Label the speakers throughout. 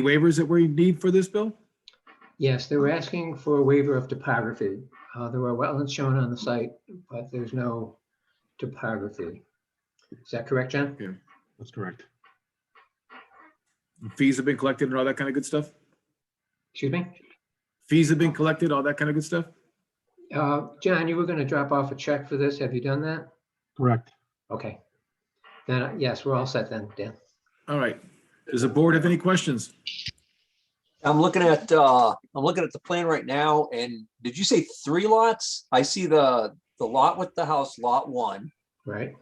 Speaker 1: waivers that we need for this, Bill?
Speaker 2: Yes, they were asking for a waiver of topography. Uh, There are wetlands shown on the site, but there's no topography. Is that correct, John?
Speaker 3: That's correct.
Speaker 1: Fees have been collected and all that kind of good stuff?
Speaker 2: Excuse me?
Speaker 1: Fees have been collected, all that kind of good stuff?
Speaker 2: Uh, John, you were going to drop off a check for this. Have you done that?
Speaker 3: Correct.
Speaker 2: Okay. Then, uh, yes, we're all set then, Dan.
Speaker 1: All right. Does the board have any questions?
Speaker 4: I'm looking at, uh, I'm looking at the plan right now and did you say three lots? I see the, the lot with the house, lot one.
Speaker 2: Right?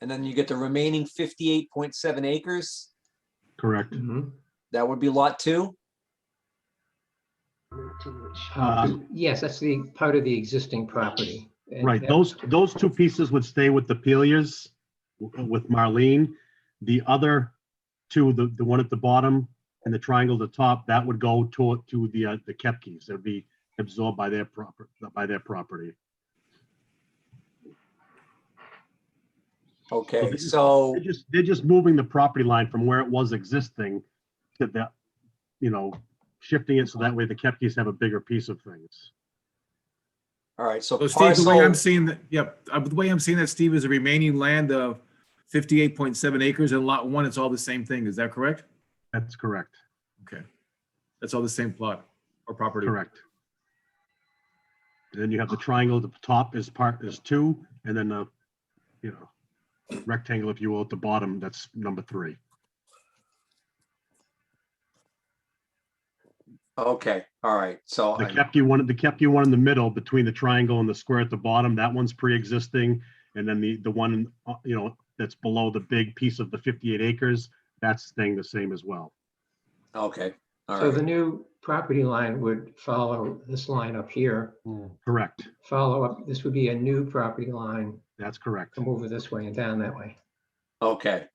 Speaker 4: And then you get the remaining fifty-eight point seven acres.
Speaker 3: Correct.
Speaker 2: Mhm.
Speaker 4: That would be lot two.
Speaker 2: Uh,
Speaker 3: Um,
Speaker 2: Yes, that's the part of the existing property. And
Speaker 3: Right.
Speaker 2: that-
Speaker 3: Those, those two pieces would stay with the Pelias, w- with Marlene. The other two, the, the one at the bottom and the triangle at the top, that would go to, to the, uh, the Kepkes. It'd be absorbed by their proper, by their property.
Speaker 4: Okay,
Speaker 3: this is-
Speaker 4: so,
Speaker 3: They're just, they're just moving the property line from where it was existing to the, you know, shifting it so that way the Kepkes have a bigger piece of things.
Speaker 4: all right, so
Speaker 1: So Steve, the way I'm
Speaker 4: parcel,
Speaker 1: seeing that, yep, uh, the way I'm seeing that, Steve, is the remaining land of fifty-eight point seven acres and lot one, it's all the same thing. Is that correct?
Speaker 3: That's correct.
Speaker 1: Okay. That's all the same plot or property.
Speaker 3: Correct. And Then you have the triangle, at the top is part, is two, and then the, you know, rectangle, if you will, at the bottom, that's number three.
Speaker 4: okay, all right, so,
Speaker 3: The
Speaker 4: I-
Speaker 3: Kepke one, the Kepke one in the middle between the triangle and the square at the bottom, that one's pre-existing. And then the, the one, uh, you know, that's below the big piece of the fifty-eight acres, that's staying the same as well.
Speaker 4: okay, all
Speaker 2: So the
Speaker 4: right,
Speaker 2: new property line would follow this line up here,
Speaker 3: Correct.
Speaker 2: follow up, this would be a new property line,
Speaker 3: That's correct.
Speaker 2: come over this way and down that way.
Speaker 4: okay.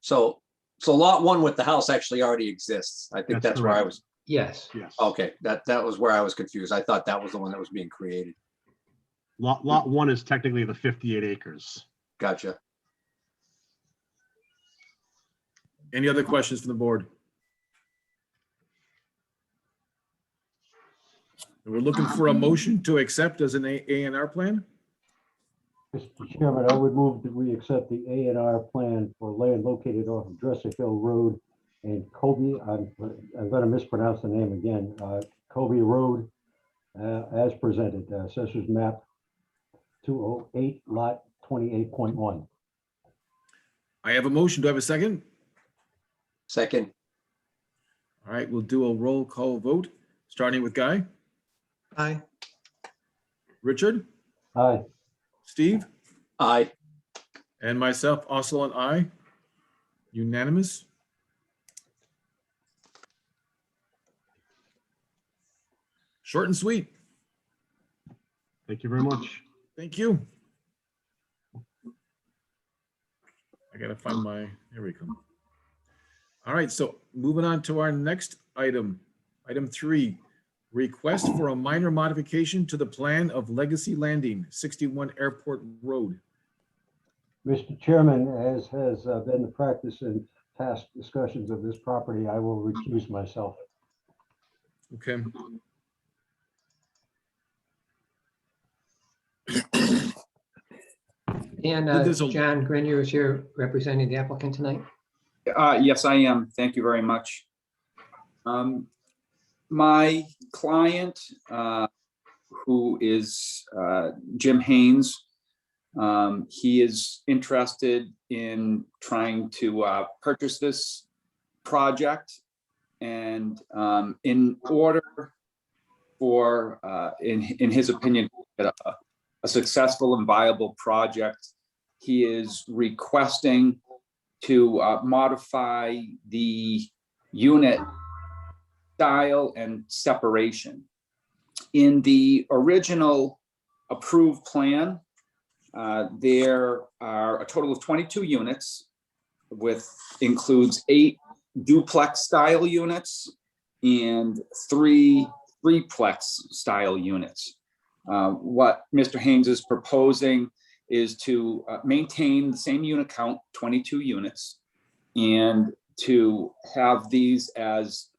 Speaker 4: So, so lot one with the house actually already exists. I think
Speaker 3: That's
Speaker 4: that's where I
Speaker 3: correct.
Speaker 4: was,
Speaker 2: Yes,
Speaker 3: Yes.
Speaker 4: okay, that, that was where I was confused. I thought that was the one that was being created.
Speaker 3: Lot, lot one is technically the fifty-eight acres.
Speaker 4: Gotcha.
Speaker 1: Any other questions from the board? We're looking for a motion to accept as an A and R plan?
Speaker 5: Mr. Chairman, I would move that we accept the A and R plan for land located off of Dresser Hill Road and Kobe, I'm, I'm gonna mispronounce the name again, uh, Kobe Road, uh, as presented, uh, Assessor's Map 208, Lot 28.1.
Speaker 1: I have a motion. Do I have a second?
Speaker 4: Second,
Speaker 1: All right, we'll do a roll call vote, starting with Guy,
Speaker 2: Aye.
Speaker 1: Richard,
Speaker 5: Aye,
Speaker 1: Steve,
Speaker 4: aye.
Speaker 1: and myself, also an aye. Unanimous. Short and sweet.
Speaker 3: Thank you very much.
Speaker 1: Thank you. I gotta find my, here we come. All right, so moving on to our next item, item three. Request for a minor modification to the plan of Legacy Landing, sixty-one Airport Road.
Speaker 5: Mr. Chairman, as has uh, been the practice in past discussions of this property, I will recuse myself.
Speaker 1: Okay.
Speaker 2: And
Speaker 1: But
Speaker 2: uh,
Speaker 1: there's a-
Speaker 2: John Grenier is here representing the applicant tonight.
Speaker 6: Uh, yes, I am. Thank you very much. Um, my client, uh, who is, uh, Jim Haynes, um, he is interested in trying to, uh, purchase this project. And, um, in order for, uh, in, in his opinion, a, a successful and viable project, he is requesting to uh, modify the unit style and separation. In the original approved plan, uh, there are a total of 22 units with, includes eight duplex style units and three threeplex style units. Uh, What Mr. Haynes is proposing is to uh, maintain the same unit count, 22 units, and to have these as